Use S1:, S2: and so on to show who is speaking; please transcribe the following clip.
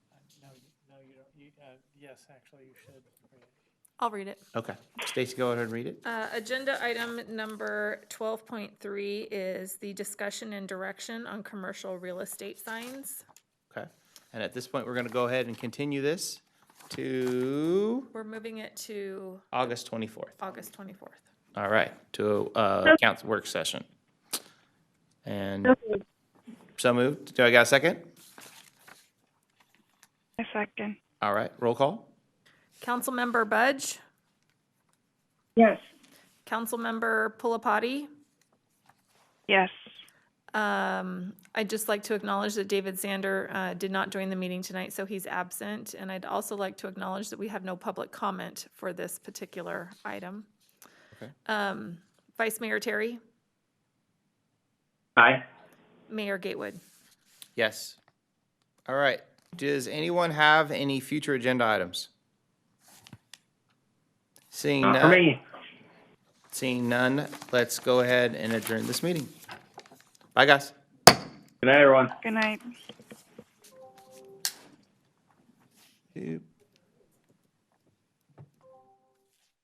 S1: Uh, You, uh, yes, actually, you should read it.
S2: I'll read it.
S3: Okay. Stacy, go ahead and read it.
S2: Uh, Agenda item number 12.3 is the discussion and direction on commercial real estate signs.
S3: Okay. And at this point, we're going to go ahead and continue this to
S2: We're moving it to
S3: August 24th.
S2: August 24th.
S3: All right, to uh, council work session. And so moved. Do I got a second?
S4: A second.
S3: All right, roll call.
S2: Councilmember Budge,
S4: Yes.
S2: Councilmember Pulapati.
S4: Yes.
S2: Um, I'd just like to acknowledge that David Zander uh, did not join the meeting tonight, so he's absent. And I'd also like to acknowledge that we have no public comment for this particular item.
S3: Okay.
S2: Um, Vice Mayor Terry,
S5: Aye.
S2: Mayor Gatewood.
S3: Yes. All right, does anyone have any future agenda items? Seeing
S5: Not for
S3: none,
S5: me.
S3: seeing none, let's go ahead and adjourn this meeting. Bye, guys.
S5: Good night, everyone.
S4: Good night.
S3: Doop.